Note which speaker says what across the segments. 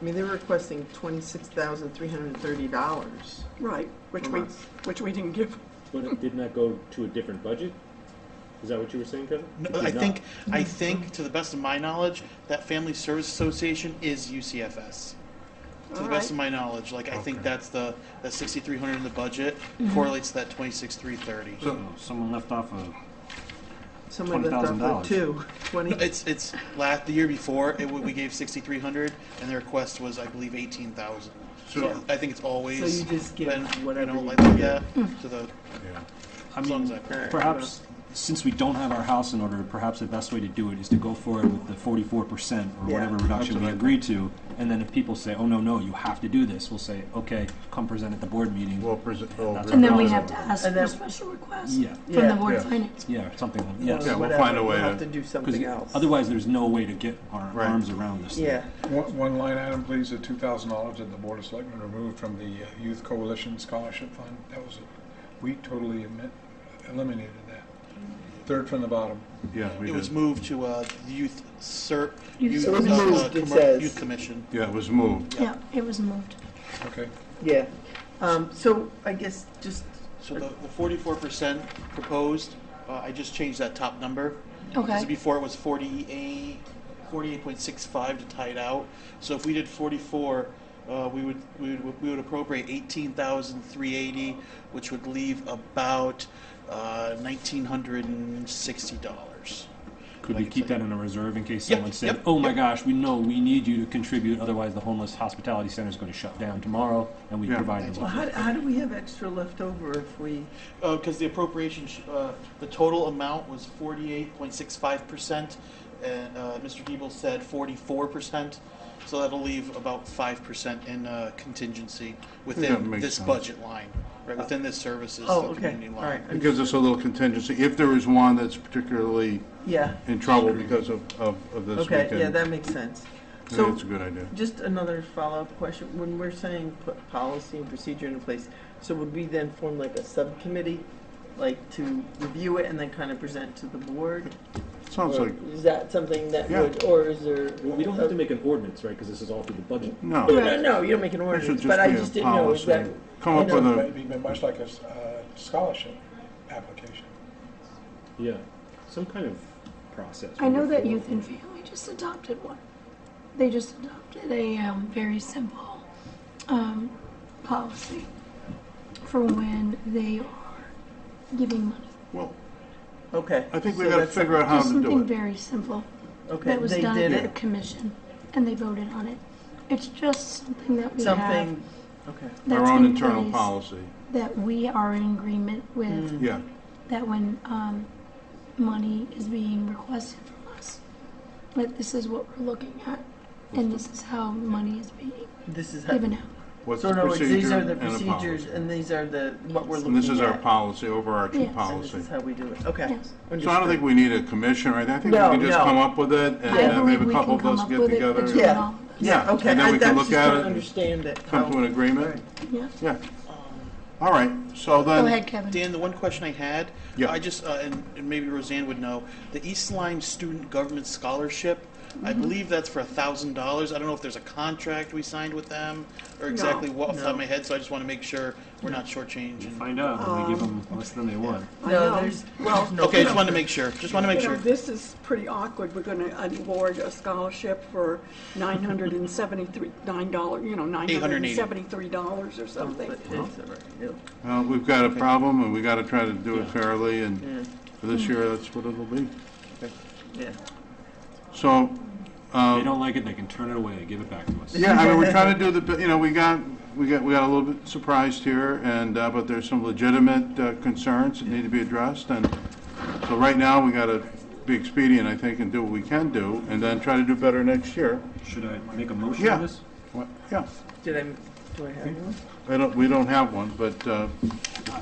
Speaker 1: I mean, they're requesting twenty-six thousand three hundred and thirty dollars
Speaker 2: Right, which
Speaker 1: from
Speaker 2: we,
Speaker 1: us.
Speaker 2: which we didn't give.
Speaker 3: But it did not go to a different budget? Is that what you were saying, Kevin?
Speaker 4: No,
Speaker 3: It did
Speaker 4: I
Speaker 3: not.
Speaker 4: think, I think, to the best of my knowledge, that Family Service Association is UCFS. To
Speaker 2: All
Speaker 4: the best
Speaker 2: right.
Speaker 4: of my knowledge, like, I think
Speaker 5: Okay.
Speaker 4: that's the, that sixty-three hundred in the budget
Speaker 1: Mm-hmm.
Speaker 4: correlates to that twenty-six, three thirty.
Speaker 5: So someone left off a,
Speaker 1: Someone left off
Speaker 5: $20,000.
Speaker 1: with two, twenty,
Speaker 4: It's, it's, la the year before, it, wa- we gave sixty-three hundred, and the request was, I believe, eighteen thousand.
Speaker 1: Yeah.
Speaker 4: So I think it's
Speaker 1: so
Speaker 4: always
Speaker 1: you just give
Speaker 4: been, you
Speaker 1: whatever you
Speaker 4: know,
Speaker 1: Hmm.
Speaker 4: like that,
Speaker 1: get.
Speaker 4: to the,
Speaker 5: yeah. I
Speaker 4: as long as I.
Speaker 5: mean,
Speaker 4: can.
Speaker 5: perhaps, since we don't have our house in order, perhaps the best way to do it is to go forward with the forty-four percent or
Speaker 1: Yeah.
Speaker 5: whatever reduction we agreed to, and then if people say, oh, no, no, you have to do this, we'll say, okay, come present at the board meeting.
Speaker 6: We'll oh, present, we'll
Speaker 5: That's
Speaker 6: re-
Speaker 7: And then we
Speaker 5: Acknowledge
Speaker 7: have
Speaker 5: it.
Speaker 7: to ask
Speaker 1: And
Speaker 7: for
Speaker 1: then-
Speaker 7: special request
Speaker 5: Yeah.
Speaker 7: from
Speaker 1: Yeah.
Speaker 7: the board
Speaker 6: Yeah.
Speaker 7: of finance.
Speaker 5: Yeah, or something, like-
Speaker 1: Yeah,
Speaker 5: yes.
Speaker 6: Yeah, we'll
Speaker 1: whatever.
Speaker 6: find a way
Speaker 1: We'll have to
Speaker 6: to-
Speaker 1: do
Speaker 5: 'Cause
Speaker 1: something else.
Speaker 5: otherwise, there's no way to get our
Speaker 4: Right.
Speaker 5: arms around this. thing.
Speaker 1: Yeah,
Speaker 8: One, one line item, please, the two thousand dollars that the Board of Selectmen removed from the uh, Youth Coalition Scholarship Fund. That was, we totally emi- eliminated that. Third from the bottom.
Speaker 6: yeah, we
Speaker 4: It was
Speaker 6: did.
Speaker 4: moved to, uh, youth cert,
Speaker 7: Youth
Speaker 4: youth,
Speaker 7: It was
Speaker 4: uh,
Speaker 1: moved, it
Speaker 4: commer-
Speaker 1: says.
Speaker 4: youth commission.
Speaker 6: Yeah, it was moved.
Speaker 7: Yeah, it was moved.
Speaker 8: Okay,
Speaker 1: yeah. Um, so I guess just,
Speaker 4: So the, the forty-four percent proposed, uh, I just changed that top number. Because
Speaker 7: Okay.
Speaker 4: before it was forty-eight, forty-eight point six five to tie it out. So if we did forty-four, uh, we would, we would, we would appropriate eighteen thousand three eighty, which would leave about, uh, nineteen hundred and sixty dollars.
Speaker 5: Could we
Speaker 4: Like
Speaker 5: keep
Speaker 4: it's
Speaker 5: that in a reserve in case
Speaker 4: Yep,
Speaker 5: someone said,
Speaker 4: yep,
Speaker 5: oh my
Speaker 4: yep.
Speaker 5: gosh, we know, we need you to contribute, otherwise the homeless hospitality center is gonna shut down tomorrow, and we
Speaker 6: Yeah.
Speaker 5: provide
Speaker 1: well, how,
Speaker 5: them.
Speaker 1: how do we have extra left over if we,
Speaker 4: Uh, because the appropriation, sh- uh, the total amount was forty-eight point six five percent, and, uh, Mr. Diebel said forty-four percent. So that'll leave about five percent in, uh, contingency
Speaker 6: That
Speaker 4: within
Speaker 6: makes
Speaker 4: this
Speaker 6: sense.
Speaker 4: budget line, right, within this services,
Speaker 1: oh,
Speaker 4: the
Speaker 1: okay,
Speaker 4: community
Speaker 1: all right.
Speaker 4: line.
Speaker 6: It gives us a little contingency. If there is one that's particularly
Speaker 1: Yeah,
Speaker 6: in trouble because of, of, of this
Speaker 1: okay, yeah,
Speaker 6: weekend,
Speaker 1: that makes sense.
Speaker 6: then
Speaker 1: So
Speaker 6: it's a good idea.
Speaker 1: Just another follow-up question. When we're saying put policy and procedure in place, so would we then form like a subcommittee, like to review it and then kind of present to the board?
Speaker 6: Sounds
Speaker 1: Or
Speaker 6: like,
Speaker 1: Is that something that
Speaker 6: Yeah.
Speaker 1: would, or is there? Oh,
Speaker 3: Well, We don't have to make an ordinance, right, because this is all through the budget.
Speaker 6: no.
Speaker 1: No, no, no, you don't make an
Speaker 6: It should
Speaker 1: ordinance,
Speaker 6: just
Speaker 1: but I
Speaker 6: be a
Speaker 1: just didn't know if
Speaker 6: policy.
Speaker 1: that,
Speaker 6: Come up
Speaker 1: you
Speaker 6: with
Speaker 1: know,
Speaker 6: a,
Speaker 8: it'd be much like a s- uh, scholarship application.
Speaker 3: Yeah, some kind of process.
Speaker 7: I know
Speaker 3: moving
Speaker 7: that
Speaker 3: forward.
Speaker 7: Youth and Family just adopted one. They just adopted a um, very simple um, policy for when they are giving money.
Speaker 6: well,
Speaker 1: okay.
Speaker 6: I think we
Speaker 1: so
Speaker 6: gotta
Speaker 1: that's-
Speaker 6: figure out how
Speaker 7: Just
Speaker 6: to do
Speaker 7: something
Speaker 6: it.
Speaker 7: very simple
Speaker 1: Okay,
Speaker 7: that was
Speaker 1: they
Speaker 7: done
Speaker 1: did
Speaker 7: at the
Speaker 1: it,
Speaker 7: commission, and they voted on it. It's just something that we have.
Speaker 1: something, okay,
Speaker 7: that's
Speaker 6: Our own
Speaker 7: in
Speaker 6: internal
Speaker 7: place
Speaker 6: policy,
Speaker 7: That we are in agreement with
Speaker 6: yeah.
Speaker 7: that when um, money is being requested from us, like this is what we're looking at, and this is how money is being
Speaker 1: this is how.
Speaker 7: given out.
Speaker 6: What's
Speaker 1: So
Speaker 6: the
Speaker 1: in other words, these
Speaker 6: procedure
Speaker 1: are
Speaker 6: and
Speaker 1: the
Speaker 6: a
Speaker 1: procedures
Speaker 6: policy?
Speaker 1: and these are the, what we're looking
Speaker 6: And
Speaker 1: at.
Speaker 6: this is our policy,
Speaker 7: Yes.
Speaker 6: overarching
Speaker 7: And
Speaker 1: And this
Speaker 6: policy.
Speaker 1: is how we do it, okay.
Speaker 7: Yes.
Speaker 6: So I don't think we need a commission, right? I think we
Speaker 1: No,
Speaker 6: can just
Speaker 1: no.
Speaker 6: come up with it and
Speaker 7: I
Speaker 6: then
Speaker 7: believe
Speaker 6: maybe
Speaker 7: we
Speaker 6: a couple
Speaker 7: can
Speaker 6: of
Speaker 7: come
Speaker 6: us
Speaker 7: up
Speaker 6: get
Speaker 7: with it
Speaker 6: together.
Speaker 7: between
Speaker 1: Yeah.
Speaker 7: all-
Speaker 6: Yeah,
Speaker 1: Okay,
Speaker 6: and then
Speaker 1: I,
Speaker 6: we
Speaker 1: that's
Speaker 6: can look
Speaker 1: just
Speaker 6: at
Speaker 1: don't
Speaker 6: it and
Speaker 1: understand it.
Speaker 6: come to an agreement.
Speaker 7: Yeah.
Speaker 6: Yeah. All right. So then.
Speaker 7: Go ahead, Kevin.
Speaker 4: Dan, the one question I had,
Speaker 6: Yeah.
Speaker 4: I just, uh, and, and maybe Roseanne would know, the East Lyme Student Government Scholarship, I
Speaker 1: Mm-hmm.
Speaker 4: believe that's for a thousand dollars. I don't know if there's a contract we signed with them or exactly what off the top of my head, so I just want to make sure we're not shortchanging.
Speaker 5: Find out, and we give
Speaker 7: Um,
Speaker 5: them less than they want.
Speaker 1: No, there's, well, no.
Speaker 4: Okay, just wanted to make sure, just want to make
Speaker 2: You know,
Speaker 4: sure.
Speaker 2: this is pretty awkward. We're gonna award a scholarship for nine hundred and seventy-three, nine dollar, you know, nine hundred and seventy-three dollars or something.
Speaker 1: But it's all right, yeah.
Speaker 6: Well, uh, we've got a problem, and we gotta try to do it fairly, and for this year, that's what it'll be.
Speaker 1: Yeah.
Speaker 6: So,
Speaker 5: If they
Speaker 6: um,
Speaker 5: don't like it, they can turn it away, give it back to us.
Speaker 6: yeah, I mean, we're trying to do the, you know, we got, we got, we got a little bit surprised here, and, uh, but there's some legitimate uh, concerns that need to be addressed, and so right now, we gotta be expedient, I think, and do what we can do, and then try to do better next year.
Speaker 5: Should I make a motion
Speaker 6: Yeah.
Speaker 5: on this?
Speaker 6: What- Yeah,
Speaker 1: Did I, do I have
Speaker 6: Hmm?
Speaker 1: one?
Speaker 6: I don't, we don't have one, but, uh, you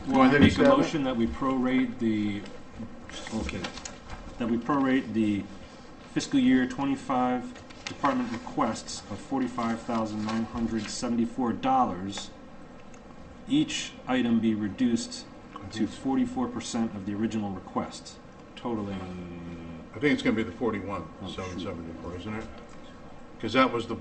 Speaker 5: Well,
Speaker 6: want
Speaker 5: I
Speaker 6: to
Speaker 5: make a
Speaker 6: stab it?
Speaker 5: motion that we prorate the, okay, that we prorate the fiscal year twenty-five department requests of forty-five thousand nine hundred seventy-four dollars. Each item be reduced to forty-four percent of the original request, totaling
Speaker 6: I think it's gonna be the forty-one, seven seventy-four, isn't it? Because that was the